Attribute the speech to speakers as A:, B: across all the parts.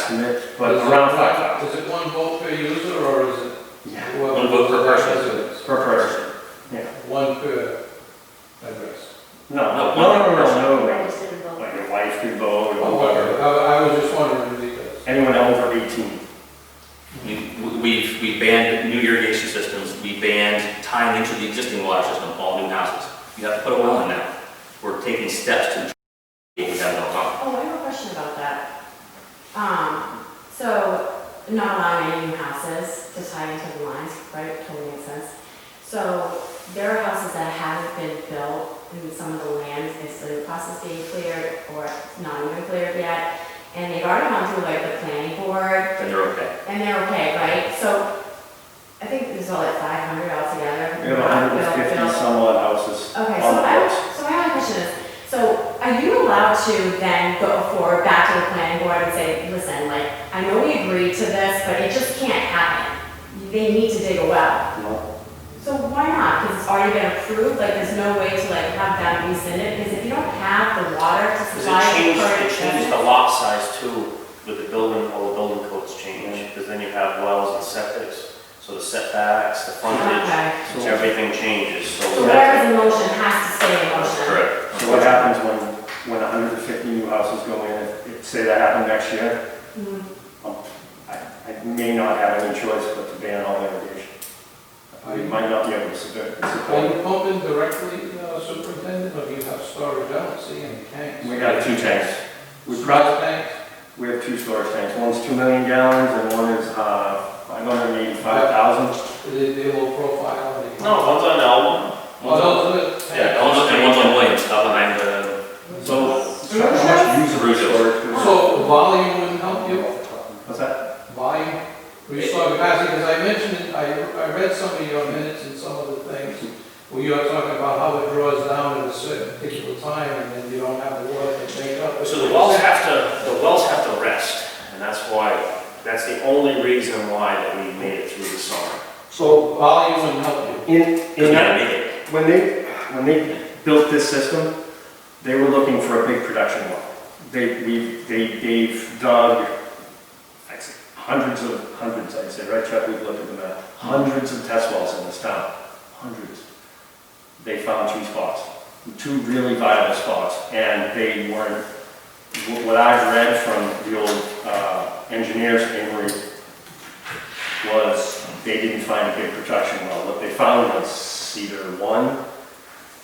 A: estimate, but around five thousand.
B: Is it one vote per user, or is it?
A: Yeah,
B: whoever-
C: One vote per person.
B: residents?
A: per person.
B: One per address.
A: No, no,
C: No,
A: no, no, no,
D: I
A: no.
D: just didn't vote.
A: Like your wife could vote, or
B: Okay,
A: whoever.
B: I, I was just wondering because.
A: anyone over eighteen.
C: We- We've, we banned new irrigation systems, we banned tying into the existing water system, all new houses. You have to put a well in now. We're taking steps to, we have no problem.
D: Oh, I have a question about that. Um, so not allowing any new houses to tie into the lines, right, totally makes sense. So there are houses that haven't been built, and some of the land is still in the process of being cleared or not even cleared yet. And they've already gone through like the planning board,
C: Then they're okay.
D: and they're okay, right? So I think there's all like five hundred altogether.
A: We have hundred and fifty
D: Built, built.
A: some odd houses on the
D: Okay, so I,
A: books.
D: so my only question is, so are you allowed to then go forward back to the planning board and say, listen, like, I know we agreed to this, but it just can't happen. They need to dig a well.
A: No.
D: So why not? Because it's already been approved, like, there's no way to like have that rescinded, because if you don't have the water to
E: Because
D: supply.
E: it changed,
D: for
E: it changed the lot size too, with the building, all the building codes
A: Yeah.
E: change, because then you have wells and septics, so the setbacks, the frontage,
D: Okay,
E: so everything changes, so.
D: so
E: that's-
D: whatever's in motion has to stay in motion.
C: Correct.
A: So what happens when, when hundred and fifty new houses go in, if- if, say that happened next year,
D: Mhm.
A: I, I may not have any choice but to ban all irrigation. We might not be able to support,
B: Are
A: support.
B: you pumping directly, uh, superintendent, or do you have storage? I don't see any tanks.
A: We got two tanks. We
B: Storage
A: brought,
B: tanks?
A: we have two storage tanks, one's two million gallons and one is, uh, five hundred and eighty-five thousand.
B: They, they will profile the.
E: No, one's on Elm,
B: Oh, those are the.
E: Yeah.
C: One's on- And one's on Williams, up behind the,
A: So,
D: Bruges?
A: how much use
C: Bruges.
A: storage?
B: So volume wouldn't help you?
A: What's that?
B: volume, restore capacity, because I mentioned, I, I read some of your minutes and some of the things where you are talking about how it draws down at a certain particular time and then you don't have the water to make up.
E: so the wells have to, the wells have to rest, and that's why, that's the only reason why that we made it through the summer.
A: So,
B: Volume wouldn't help you.
A: in,
C: because
A: in
C: we
A: that
C: gotta make it.
A: When they, when they built this system, they were looking for a big production well. They, we, they gave Doug I'd say, hundreds of, hundreds, I'd say, right Chuck, we've looked at the map, hundreds of test wells in this town, hundreds. They found two spots, two really viable spots, and they weren't, wh- what I've read from the old uh, engineers, Amory, was they didn't find a big production well. What they found was Cedar One,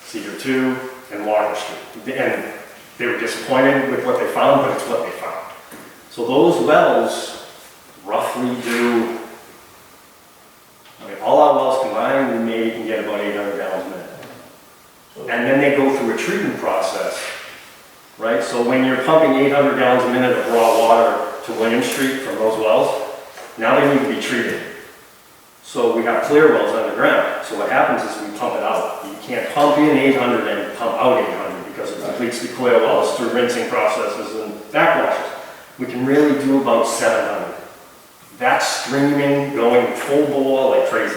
A: Cedar Two, and Water Street. And they were disappointed with what they found, but it's what they found. So those wells roughly do, I mean, all our wells combined, we maybe can get about 800 gallons a minute.
B: So-
A: And then they go through a treatment process, right? So when you're pumping 800 gallons a minute of raw water to William Street from those wells, now they need to be treated. So we have clear wells underground. So what happens is we pump it out. You can't pump in 800 and pump out 800 because it depletes the clear wells through rinsing processes and backwashes. We can really do about 700. That's streaming, going full bore like crazy.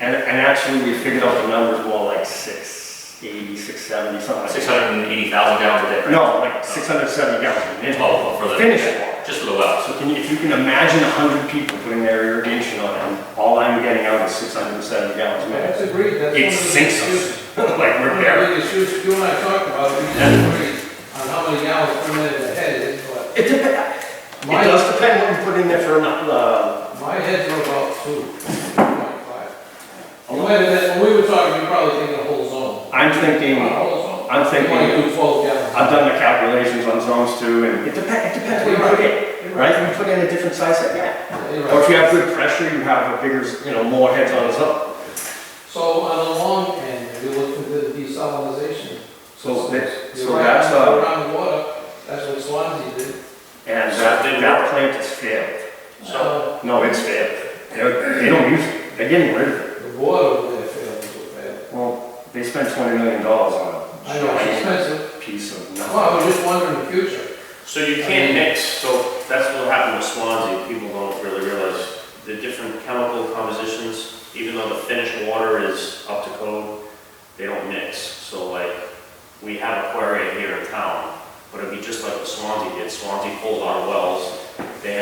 A: And, and actually, we figured out the numbers more like 680, 670, something like that.
C: Six hundred and eighty thousand gallons a day, right?
A: No, like 670 gallons a minute.
C: Oh, for the.
A: Finish it.
C: Just for the wells.
A: So can you, if you can imagine 100 people putting their irrigation on, and all I'm getting out is 670 gallons a
B: That's
A: minute.
B: agreed, that's one
A: It
B: of the
A: sinks
B: biggest
A: us,
B: issues.
A: like
B: One
A: we're
B: of
A: there.
B: the biggest issues you and I talked about, we disagreed on how many gallons per minute the head is, but
A: It depends, it
B: my,
A: does depend what you put in there for, uh,
B: my heads are about two, two point five.
A: Oh.
B: And Wait a minute, when we were talking, you probably thinking a whole zone.
A: I'm
B: A
A: thinking,
B: whole zone.
A: I'm
B: You
A: thinking.
B: want to do twelve gallons.
A: I've done the calculations on zones too, and it depends, it depends what you put in, right? If you put in a different size, yeah. Or if you have good pressure, you have a bigger, you know, more heads on a zone.
B: So on the long end, if you look into the desalinization.
A: So
B: systems,
A: that-
B: you're
A: so
B: right,
A: that's, uh,
B: Around water, that's what Swansea did.
A: And that, that plant is failed.
B: So
A: No, it's failed. They're, they don't use it, they're getting rid of it.
B: the water over there failed so bad.
A: Well, they spent twenty million dollars on
B: I know, it's
A: a
B: expensive.
A: piece of
B: Well, I
A: nothing.
B: was just wondering the future.
E: So you can't mix, so that's what happened with Swansea, people don't really realize the different chemical compositions, even though the finished water is up to code, they don't mix. So like, we have aquaria here in town, but it'd be just like what Swansea did, Swansea pulled our wells,